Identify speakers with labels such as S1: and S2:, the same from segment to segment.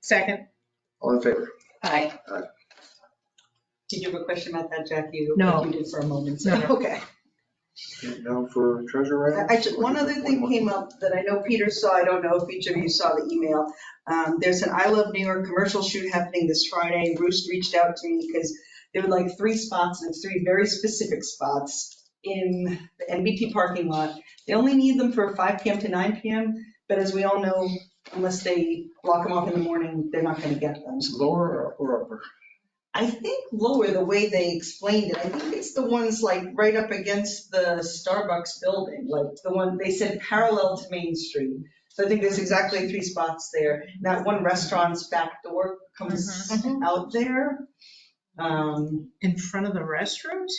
S1: Second.
S2: All in favor?
S1: Aye.
S3: Did you have a question about that, Jackie?
S1: No.
S3: You did for a moment. so-
S1: Okay.
S2: Okay, Now for treasurer item?
S4: I just, one other thing came up that I know Peter saw, I don't know if each of you saw the email. Um, There's an I Love New York commercial shoot happening this Friday. Roost reached out to me because there were like three spots, and it's three very specific spots in the NBT parking lot. They only need them for 5 PM to 9 PM, but as we all know, unless they block them off in the morning, they're not going to get them.
S2: It's Lower or upper?
S4: I think lower, the way they explained it, I think it's the ones like right up against the Starbucks building, like the one, they said parallel to Main Street. So I think there's exactly three spots there. That one restaurant's back door comes out there. Um,
S1: In front of the restrooms?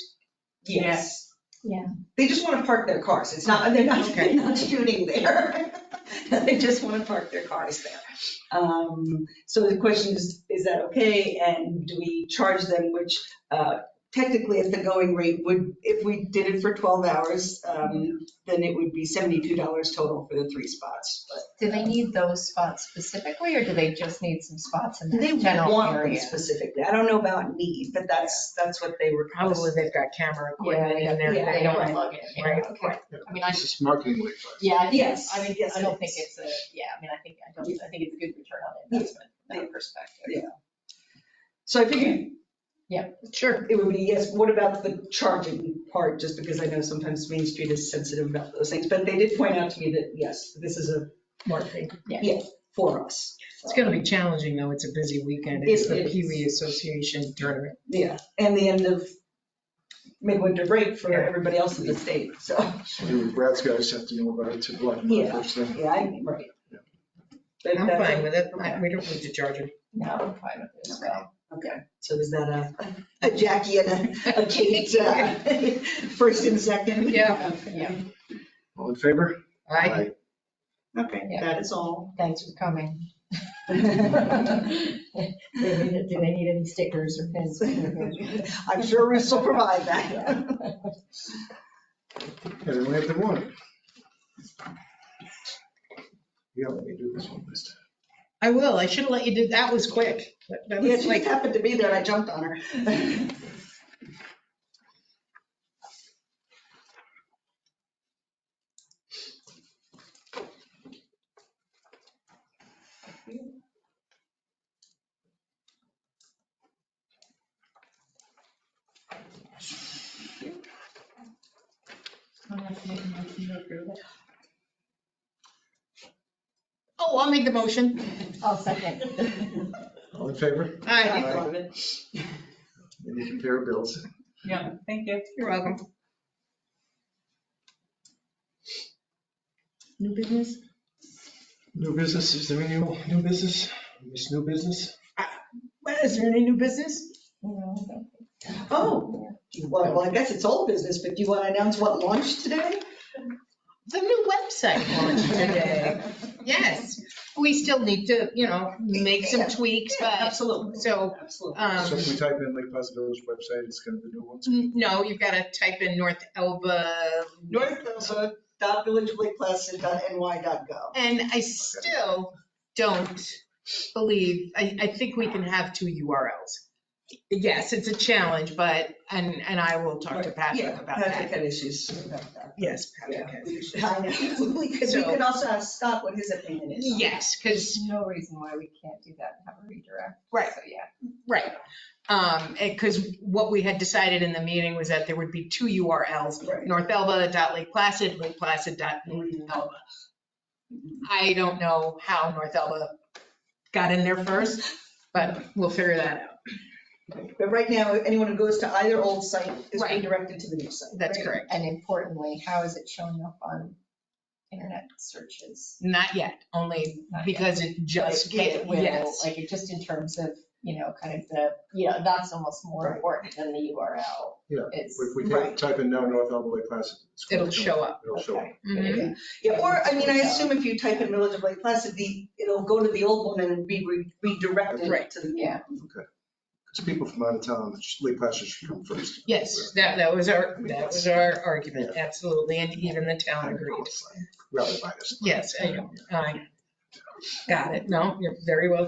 S4: yes.
S5: Yeah.
S4: They just want to park their cars. It's not, they're not,
S1: Okay.
S4: they're not shooting there. They just want to park their cars there. Um, So the question is, is that okay? And do we charge them, which uh, technically at the going rate would, if we did it for 12 hours, um, then it would be $72 total for the three spots. But
S5: Do they need those spots specifically, or do they just need some spots in
S4: They
S5: that general
S4: want them
S5: area?
S4: specifically. I don't know about need, but that's, that's what they were.
S1: Probably they've got camera
S5: Yeah,
S1: equipment in there.
S4: yeah,
S5: They don't
S4: right,
S5: plug it, yeah,
S1: right,
S5: okay. I mean, I,
S2: This is marketing way far.
S5: yeah, I think,
S4: Yes,
S5: I mean,
S4: yes,
S5: I
S4: it
S5: don't think
S4: is.
S5: it's a, yeah, I mean, I think, I don't, I think it's a good return on investment, from that perspective.
S4: So I figured.
S5: Yeah.
S4: Sure. It would be, yes, what about the charging part, just because I know sometimes Main Street is sensitive about those things, but they did point out to me that, yes, this is a
S1: Marketing.
S4: for us.
S1: It's gonna be challenging though. It's a busy weekend.
S4: It
S1: It's the
S4: is.
S1: Pee Wee Association tournament.
S4: Yeah, and the end of midwinter break for
S1: Yeah.
S4: everybody else in the state, so,
S2: So the Brad's guys have to know about it too, like,
S4: Yeah.
S2: first thing.
S4: yeah, I'm right.
S2: Yeah.
S4: But uh,
S1: I'm
S4: that's-
S1: fine with it. I- We don't need to charge them.
S5: No, I'm fine with it as well.
S4: Okay, so is that a, a Jackie and a a Kate, uh, first and second?
S1: Yeah.
S5: Yeah.
S2: All in favor?
S1: I,
S4: Okay, that is all.
S5: Thanks for coming. Do they need any stickers or pins?
S4: I'm sure Russ will provide that.
S2: And then we have the warrant. Yeah, let me do this one this time.
S1: I will. I should have let you do, that was quick. That- That
S4: Yeah,
S1: was
S4: she
S1: like,
S4: happened to be there and I jumped on her.
S1: oh, I'll make the motion.
S5: I'll second.
S2: All in favor?
S1: Aye,
S4: I love it.
S2: We need to pay our bills.
S3: Yeah, thank you.
S1: you're welcome. New business?
S2: New business, is there any new business? Miss new business?
S1: Well, Is there any new business?
S5: No,
S4: Oh, well, well, I guess it's old business, but do you want to announce what launched today?
S1: The new website launched today. Yes, we still need to, you know, make some tweaks, but,
S4: Absolutely,
S1: so,
S4: absolutely.
S1: um,
S2: So if we type in Lake Placid Village website, it's gonna be new ones.
S1: no, you've got to type in North Elba.
S4: North Plaza, dot village of Lake Placid, dot NY, dot gov.
S1: And I still don't believe, I, I think we can have two URLs. Yes, it's a challenge, but, and, and I will talk to Patrick about
S4: Patrick
S1: that.
S4: had issues about that.
S1: Yes, Patrick
S4: Yeah,
S1: has
S4: we
S1: issues.
S4: should- I know. We could, we
S1: So-
S4: could also ask Scott what his opinion is. on it.
S1: Yes, because
S5: There's no reason why we can't do that and have a redirect.
S1: Right.
S5: So, yeah.
S1: Right. Um, because what we had decided in the meeting was that there would be two URLs,
S4: Right.
S1: North Elba dot Lake Placid, Lake Placid dot North
S5: Mm-hmm.
S1: Elba. I don't know how North Elba got in there first, but we'll figure that out.
S4: But right now, anyone who goes to either old site is
S1: Right.
S4: redirected to the new site.
S1: That's
S5: Right.
S1: correct.
S5: And importantly, how is it showing up on internet searches?
S1: Not yet, only
S5: Not yet.
S1: because it just,
S5: Uh, Like, it
S1: came-
S5: will,
S1: yes.
S5: Like, it just in terms of, you know, kind of the, you know, that's almost more
S4: Right.
S5: important than the URL.
S2: Yeah,
S5: It's,
S2: If we type- type in now North Elba Lake Placid. it's gonna
S1: It'll show up.
S2: It'll show up.
S1: Mhm.
S5: okay.
S4: Yeah, or, I mean, I assume if you type in Village of Lake Placid, the, it'll go to the old one and it'd be re- redirected
S1: Right.
S4: to the new.
S5: Yeah,
S2: Because people from out of town, Lake Placid should come first.
S1: Yes, that, that was our, that was our argument, absolutely, and even the town agreed.
S2: Rather biased.
S1: Yes, I know. I got it. No, you're very well